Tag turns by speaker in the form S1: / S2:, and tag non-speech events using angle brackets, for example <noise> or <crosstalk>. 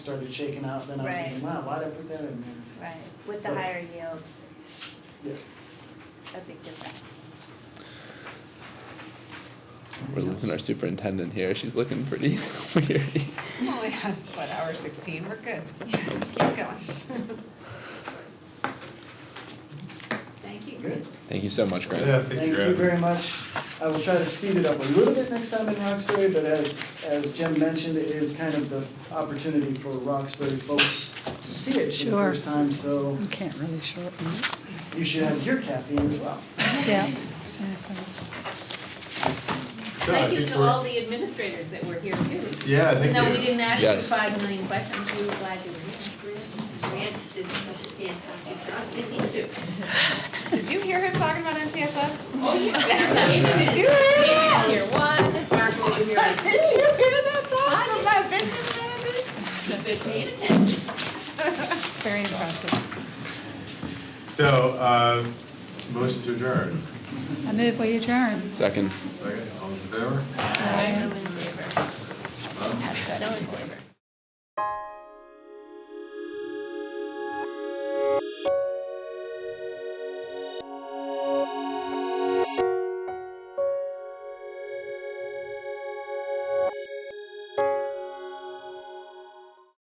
S1: started shaking out, then I was
S2: Right.
S1: thinking, wow, why'd I put that in there?
S2: Right, with the
S1: But-
S2: higher yield, it's
S1: Yeah.
S2: a big difference.
S3: We're losing our superintendent here. She's looking pretty <laughs> weary.
S4: Well, we have, what, hour sixteen, we're good. Keep going.
S5: Thank you.
S1: Good.
S3: Thank you so much, Grant.
S6: Yeah, thank
S1: Thank
S6: you,
S1: you
S6: Grant.
S1: very much. I will try to speed it up a little bit next time in Roxbury, but as, as Jim mentioned, it is kind of the opportunity for Roxbury folks to see it for the
S7: Sure.
S1: first time, so
S7: You can't really shorten it.
S1: you should have your caffeine as well.
S7: Yeah, exactly.
S6: Yeah, I
S5: Thank you
S6: think
S5: to
S6: we're-
S5: all the administrators that were here too.
S6: Yeah, I
S5: Even
S6: think
S5: though we
S6: we-
S5: didn't ask you
S3: Yes.
S5: five million questions, we were glad you were here.
S8: Grant did such a fantastic job.
S4: Did you hear him talking about MTSS?
S5: Oh, yeah.
S4: Did you hear that?
S5: Tier one, Mark over
S4: <laughs> Did you
S5: here.
S4: hear that talk from that business manager?
S8: Paid attention.
S4: It's very impressive.
S6: So, uh, motion to adjourn.
S7: I move we adjourn.
S3: Second.
S6: Second, all those in favor?
S5: No in favor.
S6: Huh?
S5: No in favor.